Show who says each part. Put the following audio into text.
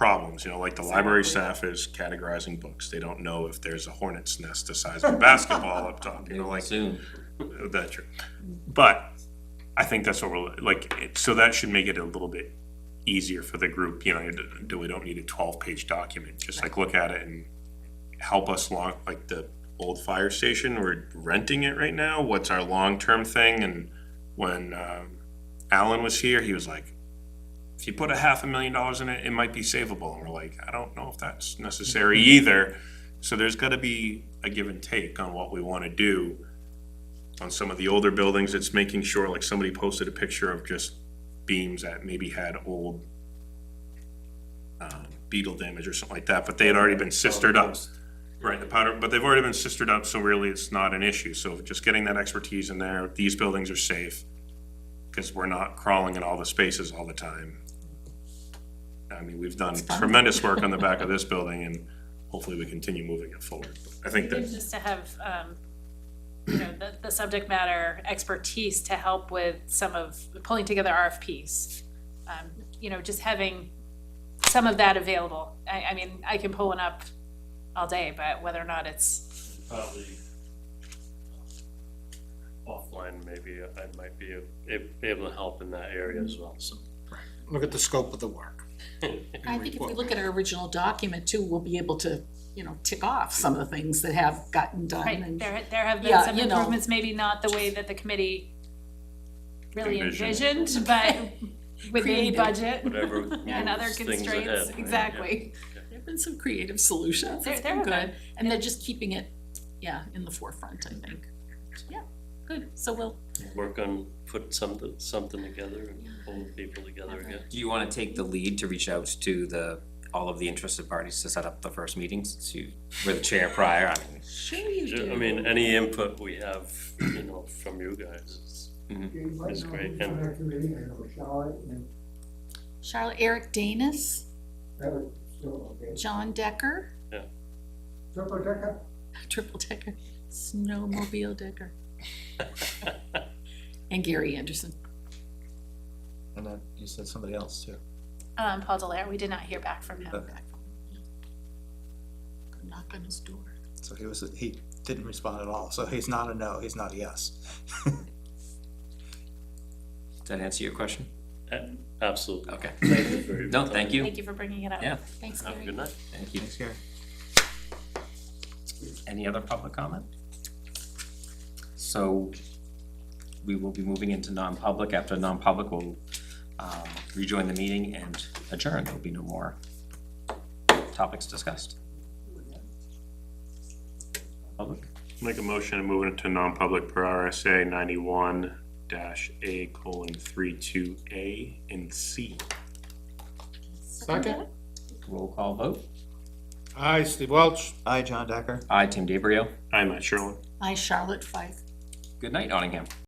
Speaker 1: problems, you know, like the library staff is categorizing books. They don't know if there's a hornet's nest the size of a basketball up top, you know, like uh,
Speaker 2: Soon.
Speaker 1: that's true. But I think that's what we're, like, it- so that should make it a little bit easier for the group, you know, do- do we don't need a twelve-page document, just like look at it and help us long, like the old fire station, we're renting it right now, what's our long-term thing? And when, um, Alan was here, he was like, if you put a half a million dollars in it, it might be savable, and we're like, I don't know if that's necessary either. So there's gotta be a give and take on what we wanna do on some of the older buildings, it's making sure, like somebody posted a picture of just beams that maybe had old um, beetle damage or something like that, but they had already been sistered up. Right, the powder, but they've already been sistered up, so really it's not an issue. So just getting that expertise in there, these buildings are safe because we're not crawling in all the spaces all the time. I mean, we've done tremendous work on the back of this building and hopefully we continue moving it forward. I think
Speaker 3: Even
Speaker 1: that,
Speaker 3: just to have, um, you know, the, the subject matter expertise to help with some of, pulling together RFPs. Um, you know, just having some of that available. I, I mean, I can pull one up all day, but whether or not it's,
Speaker 4: probably offline, maybe I might be a- be able to help in that area as well, so.
Speaker 5: look at the scope of the work.
Speaker 6: I think if we look at our original document too, we'll be able to, you know, tick off some of the things that have gotten done
Speaker 3: right,
Speaker 6: and
Speaker 3: there, there have been
Speaker 6: Yeah,
Speaker 3: some
Speaker 6: you know.
Speaker 3: improvements, maybe not the way that the committee really
Speaker 1: Envisioned.
Speaker 3: envisioned, but with the
Speaker 6: Created.
Speaker 3: budget
Speaker 4: Whatever
Speaker 3: and other
Speaker 4: moves things ahead,
Speaker 3: constraints,
Speaker 4: right?
Speaker 3: exactly.
Speaker 6: there've been some creative solutions,
Speaker 3: There-
Speaker 6: it's
Speaker 3: there
Speaker 6: been
Speaker 3: have
Speaker 6: good. And they're just keeping it, yeah, in the forefront, I think. Yeah, good, so we'll,
Speaker 4: Yeah. Work on, put something, something together and pull people together again.
Speaker 2: Do you wanna take the lead to reach out to the, all of the interested parties to set up the first meetings? Since you were the chair prior, I mean,
Speaker 6: sure you
Speaker 4: Ju-
Speaker 6: do.
Speaker 4: I mean, any input we have, you know, from you guys is,
Speaker 7: Jane,
Speaker 4: That's
Speaker 7: right
Speaker 4: great,
Speaker 7: now, who's on
Speaker 4: and-
Speaker 7: our committee, I know Charlotte and
Speaker 6: Charlotte, Eric Danis,
Speaker 7: Eric, still, okay.
Speaker 6: John Decker,
Speaker 7: Triple Decker,
Speaker 6: Triple Decker, Snowmobile Decker. And Gary Anderson.
Speaker 8: And then you said somebody else too.
Speaker 3: Um, Paul Delaire, we did not hear back from him.
Speaker 6: Go Knock on his door.
Speaker 8: So he was, he didn't respond at all. So he's not a no, he's not a yes.
Speaker 2: does that answer your question?
Speaker 4: a- absolutely.
Speaker 2: Okay.
Speaker 4: Thank you for your
Speaker 2: No, thank you.
Speaker 3: Thank you for bringing it up.
Speaker 2: Yeah.
Speaker 6: Thanks,
Speaker 4: Have a
Speaker 6: Gary.
Speaker 4: good night.
Speaker 2: Thank you.
Speaker 8: Thanks, Gary.
Speaker 2: Any other public comment? So we will be moving into non-public. After non-public, we'll um, rejoin the meeting and adjourn. There'll be no more topics discussed. Public?
Speaker 1: make a motion to move into non-public per RSA ninety-one dash A colon three two A and C.
Speaker 5: Second?
Speaker 2: Roll call vote.
Speaker 5: Aye, Steve Welch.
Speaker 8: Hi, John Decker.
Speaker 2: Aye, Tim DeBrio.
Speaker 1: I'm at Sherlin.
Speaker 6: Hi, Charlotte Fife.
Speaker 2: Good night, Nottingham.